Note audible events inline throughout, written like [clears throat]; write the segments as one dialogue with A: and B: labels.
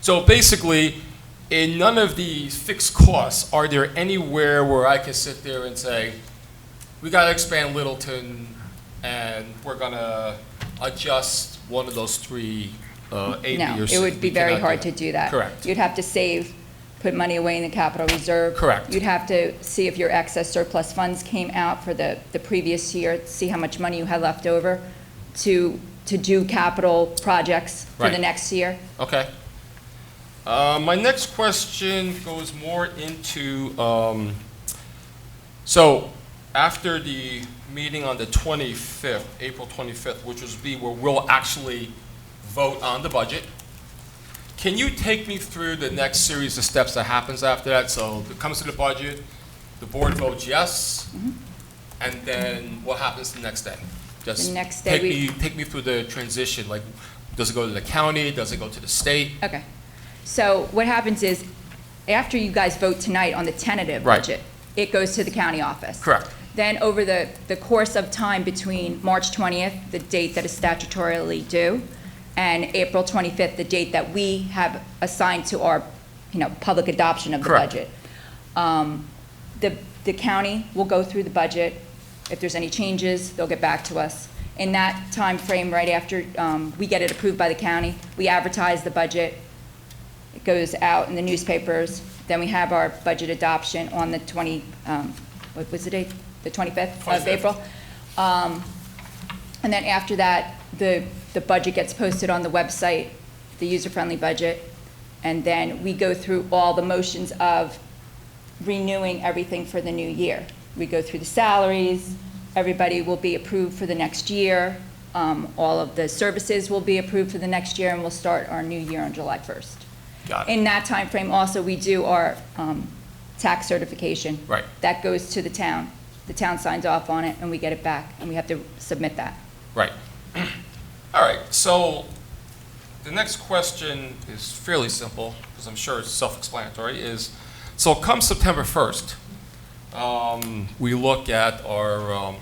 A: So basically, in none of the fixed costs are there anywhere where I could sit there and say, we got to expand Littleton and we're going to adjust one of those three, uh, A, B,
B: No,
A: or C.
B: it would be
A: We
B: very
A: cannot do
B: hard
A: that.
B: to do that.
A: Correct.
B: You'd have to save, put money away in the capital reserve.
A: Correct.
B: You'd have to see if your excess surplus funds came out for the, the previous year, see how much money you had left over to, to do capital projects for the
A: Right.
B: next year.
A: Okay. Uh, My next question goes more into, um, so after the meeting on the 25th, April 25th, which will be where we'll actually vote on the budget, can you take me through the next series of steps that happens after that? So it comes to the budget, the board votes yes, and then what happens the next day? Just
B: Mm-hmm. The next day
A: take
B: we-
A: me- Take me through the transition, like, does it go to the county, does it go to the state?
B: Okay. So what happens is, after you guys vote tonight on the tentative
A: Right.
B: budget, it goes to the county office.
A: Correct.
B: Then over the, the course of time between March 20th, the date that is statutorily due, and April 25th, the date that we have assigned to our, you know, public adoption of the
A: Correct.
B: budget. Um, The, the county will go through the budget. If there's any changes, they'll get back to us. In that time frame, right after um, we get it approved by the county, we advertise the budget. It goes out in the newspapers. Then we have our budget adoption on the 20, um, what was the date? The 25th of
A: 25th.
B: April? Um, And then after that, the, the budget gets posted on the website, the user-friendly budget. And then we go through all the motions of renewing everything for the new year. We go through the salaries, everybody will be approved for the next year, um, all of the services will be approved for the next year, and we'll start our new year on July 1st.
A: Got it.
B: In that time frame, also, we do our um, tax certification.
A: Right.
B: That goes to the town. The town signs off on it, and we get it back, and we have to submit that.
A: Right. [clears throat] All right, so the next question is fairly simple, because I'm sure it's self-explanatory, is, so come September 1st, um, we look at our, um,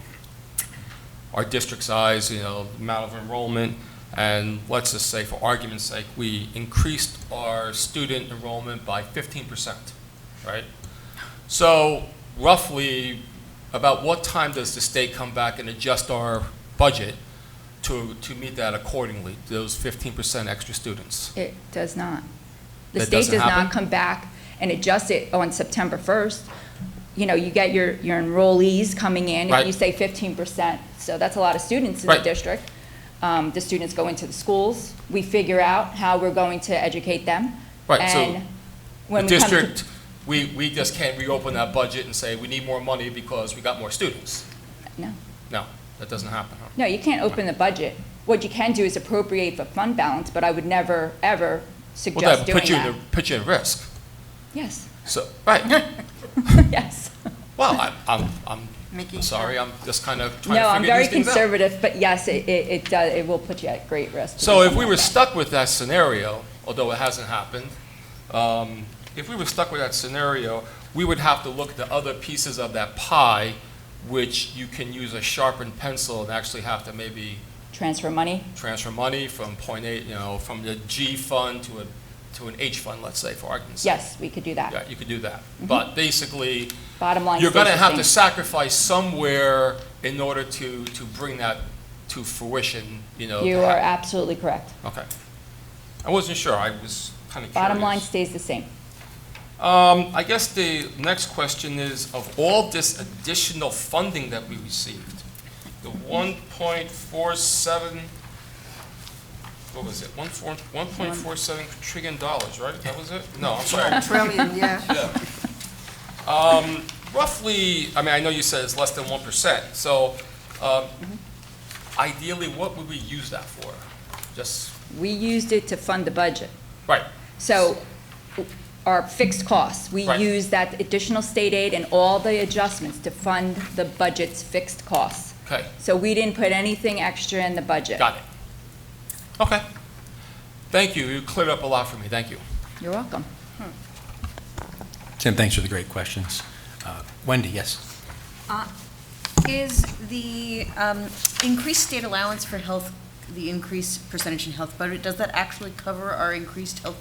A: our district size, you know, amount of enrollment, and let's just say, for argument's sake, we increased our student enrollment by 15%, right? So roughly, about what time does the state come back and adjust our budget to, to meet that accordingly, those 15% extra students?
B: It does not. The
A: That
B: state
A: doesn't
B: does not
A: happen?
B: come back and adjust it on September 1st. You know, you get your, your enrollees coming in, and
A: Right.
B: you say 15%, so that's a lot of students in the
A: Right.
B: district. Um, The students go into the schools, we figure out how we're going to educate them.
A: Right, so
B: And
A: The
B: when we come to-
A: district, we, we just can't reopen that budget and say, we need more money because we got more students.
B: No.
A: No, that doesn't happen, huh?
B: No, you can't open the budget. What you can do is appropriate for fund balance, but I would never,
A: Well,
B: ever
A: that
B: suggest
A: would
B: doing
A: put you in
B: that.
A: the- Put you at risk.
B: Yes, [laughs]
A: So, right,
B: yes.
A: well, I'm, I'm, I'm
C: Mickey?
A: I'm sorry, I'm just kind of
B: No,
A: trying to
B: I'm
A: figure
B: very
A: these things out.
B: conservative, but yes, it, it it does, it will put you at great risk. to do
A: So if
B: something
A: we
B: like
A: were
B: that.
A: stuck with that scenario, although it hasn't happened, um, if we were stuck with that scenario, we would have to look at the other pieces of that pie, which you can use a sharpened pencil and actually have to maybe
B: Transfer money,
A: transfer money from point A, you know, from the G fund to a, to an H fund, let's say, for argument's sake.
B: yes, we could do that.
A: Yeah, you could do that.
B: Mm-hmm.
A: But basically,
B: Bottom line
A: you're
B: stays the
A: going to have
B: same.
A: to sacrifice somewhere in order to, to bring that to fruition, you know.
B: You
A: to
B: are
A: happen.
B: absolutely correct.
A: Okay. I wasn't sure, I was kind of curious.
B: Bottom line stays the same.
A: Um, I guess the next question is, of all this additional funding that we received, the one point four seven, what was it, one four, one point four seven trillion dollars, right? That was it? No, I'm sorry.
C: Trillion, yeah.
A: Um, roughly, I mean, I know you said it's less than one percent, so, um, ideally, what would we use that for? Just,
B: We used it to fund the budget.
A: right,
B: So our fixed costs, we
A: Right.
B: use that additional state aid and all the adjustments to fund the budget's fixed costs.
A: okay.
B: So we didn't put anything extra in the budget.
A: Got it. Okay. Thank you. You cleared up a lot for me. Thank you.
B: You're welcome.
D: Tim, thanks for the great questions. Uh, Wendy, yes.
C: Is the um, increased state allowance for health, the increased percentage in health budget, does that actually cover our increased health